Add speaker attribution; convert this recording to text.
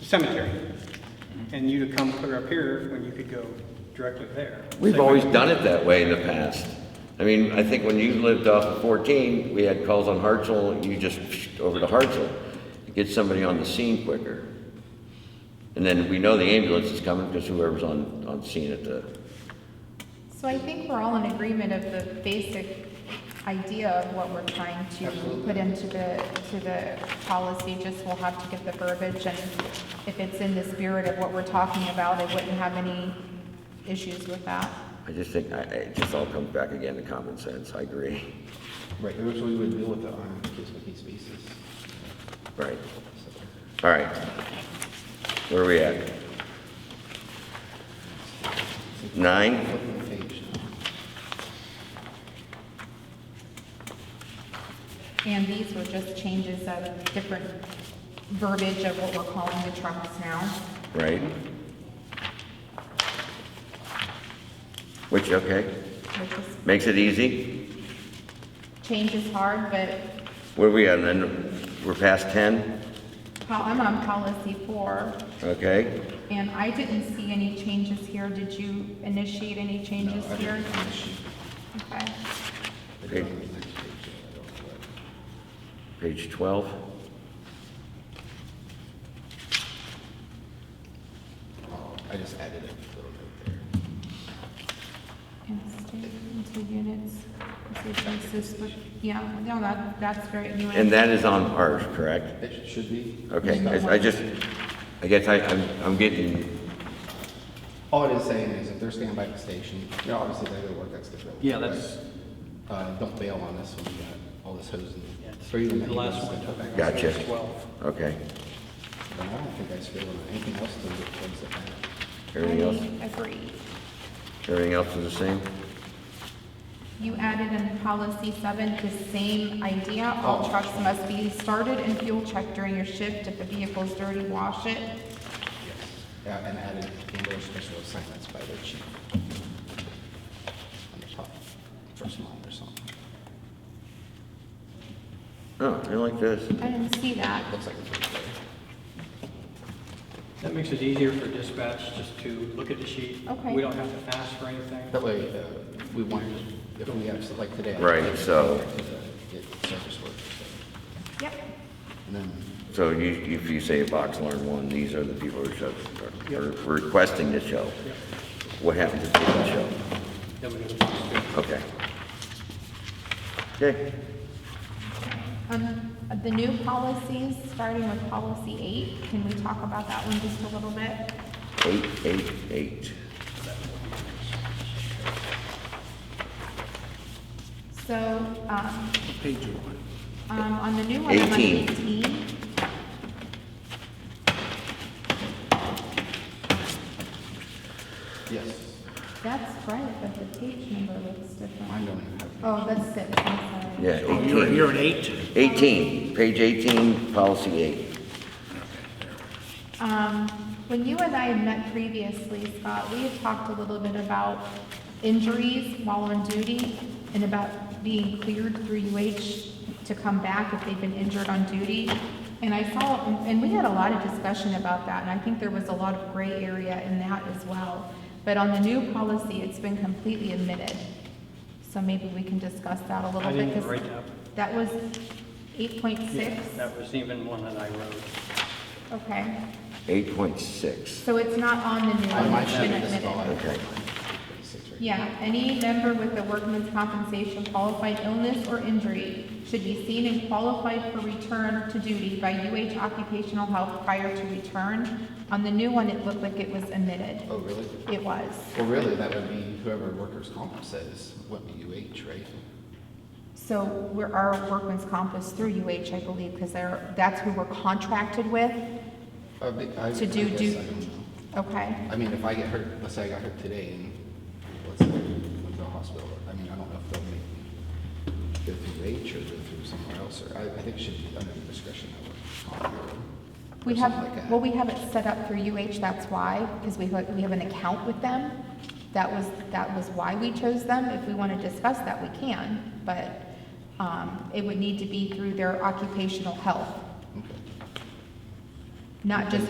Speaker 1: cemetery, and you to come clear up here when you could go directly there.
Speaker 2: We've
Speaker 1: Same
Speaker 2: always
Speaker 1: way.
Speaker 2: done it that way in the past. I mean, I think when you lived off of 14, we had calls on Hartsel, you just psh, over to Hartsel, get somebody on the scene quicker. And then we know the ambulance is coming because whoever's on, on scene at the,
Speaker 3: So I think we're all in agreement of the basic idea of what we're trying to put into the, to the policy, just we'll have to get the verbiage, and if it's in the spirit of what we're talking about, I wouldn't have any issues with that.
Speaker 2: I just think, I, I- it just all comes back again to common sense, I agree.
Speaker 4: Right, which we would deal with it on a case-by-case basis.
Speaker 2: Right,
Speaker 4: So.
Speaker 2: all right. Where are we at? Nine?
Speaker 4: Flipping the page now.
Speaker 3: And these were just changes of different verbiage of what we're calling the trucks now.
Speaker 2: Right. Which, okay,
Speaker 3: which is,
Speaker 2: makes it easy.
Speaker 3: change is hard, but
Speaker 2: Where we at, then, we're past 10,
Speaker 3: pol- I'm on policy four,
Speaker 2: okay?
Speaker 3: and I didn't see any changes here. Did you initiate any changes
Speaker 4: No, I
Speaker 3: here?
Speaker 4: don't think it should-
Speaker 3: Okay.
Speaker 4: it's
Speaker 2: Okay.
Speaker 4: on the next page, so I don't know what.
Speaker 2: Page 12.
Speaker 4: Oh, I just added a little bit there.
Speaker 3: And state into units, basis, but, yeah, no, that, that's very, you
Speaker 2: And that is on ours, correct?
Speaker 4: It should be.
Speaker 2: Okay, I I just, I guess I, I'm I'm getting,
Speaker 4: All it is saying is if they're standing by the station, you know, obviously they go work, that's different.
Speaker 5: Yeah, that's-
Speaker 4: But, Uh, don't bail on this one, you got all this hosing.
Speaker 5: it's
Speaker 4: Or even
Speaker 5: the
Speaker 4: that
Speaker 5: last
Speaker 4: you
Speaker 5: one.
Speaker 4: just-
Speaker 2: gotcha.
Speaker 5: Twelve.
Speaker 2: Okay,
Speaker 4: But I don't think I should on anything else to the things that matter.
Speaker 2: everything else,
Speaker 3: I agree.
Speaker 2: everything else is the same?
Speaker 3: You added in policy seven, the same idea, all
Speaker 4: Oh.
Speaker 3: trucks must be started and fuel checked during your shift. If the vehicle's dirty, wash it.
Speaker 4: Yes. Yeah, and added indoor special assignments by the chief. On the top, first line or something.
Speaker 2: Oh, I like this.
Speaker 3: I didn't see that.
Speaker 4: Looks like a first layer.
Speaker 1: That makes it easier for dispatch just to look at the sheet.
Speaker 3: Okay.
Speaker 1: We don't have to ask for anything.
Speaker 4: That way, uh, we want, if we have, so like today. I
Speaker 2: Right,
Speaker 4: have to
Speaker 2: so-
Speaker 4: Get service uh, work,
Speaker 3: Yep.
Speaker 4: so, and then,
Speaker 2: So you, if you say a box alarm one, these are the people who are- are requesting the show. What happens if they don't show?
Speaker 1: Then we go to-
Speaker 2: Okay. Okay,
Speaker 3: Um, the new policies, starting with policy eight, can we talk about that one just a little bit?
Speaker 2: eight, eight, eight.
Speaker 3: So, um. Page one. Um, on the new one, I'm on
Speaker 2: 18.
Speaker 3: eighteen.
Speaker 4: yes,
Speaker 3: That's right, but the page number looks different.
Speaker 4: mine don't even have.
Speaker 3: Oh, that's six, I'm sorry.
Speaker 2: Yeah,
Speaker 5: Oh, you're,
Speaker 2: eighteen.
Speaker 5: you're an eight?
Speaker 2: Eighteen, page eighteen, policy eight.
Speaker 3: Um, when you and I had met previously, Scott, we had talked a little bit about injuries while on duty and about being cleared through UH to come back if they've been injured on duty. And I saw, and we had a lot of discussion about that, and I think there was a lot of gray area in that as well. But on the new policy, it's been completely omitted. So maybe we can discuss that a little
Speaker 1: I
Speaker 3: bit.
Speaker 1: didn't
Speaker 3: 'cause
Speaker 1: write that.
Speaker 3: That was eight point six,
Speaker 1: Yeah, That was even one that I wrote.
Speaker 3: okay.
Speaker 2: Eight point six.
Speaker 3: So it's not on the new
Speaker 4: I
Speaker 3: one,
Speaker 4: might
Speaker 3: it's
Speaker 4: have
Speaker 3: been
Speaker 4: it this
Speaker 3: omitted.
Speaker 4: all.
Speaker 2: Okay.
Speaker 3: Yeah, any member with a workman's compensation qualified illness or injury should be seen and qualified for return to duty by UH Occupational Health prior to return. On the new one, it looked like it was omitted.
Speaker 4: Oh, really?
Speaker 3: It was.
Speaker 4: Well, really, that would be whoever workers' comp says, would be UH, right?
Speaker 3: So we're, our workman's comp is through UH, I believe, because they're, that's who we're contracted with,
Speaker 4: Uh, but I-
Speaker 3: To do-
Speaker 4: I guess
Speaker 3: do-
Speaker 4: I don't know.
Speaker 3: okay?
Speaker 4: I mean, if I get hurt, let's say I got hurt today and let's say I went to the hospital, I mean, I don't know if they'll make me go through H or go through somewhere else, or I, I think it should be under the discretion of a comptroller or
Speaker 3: We
Speaker 4: something like that.
Speaker 3: have, well, we have it set up through UH, that's why, because we, have- we have an account with them. That was, that was why we chose them. If we want to discuss that, we can, but, um, it would need to be through their occupational health,
Speaker 4: Okay.
Speaker 3: not just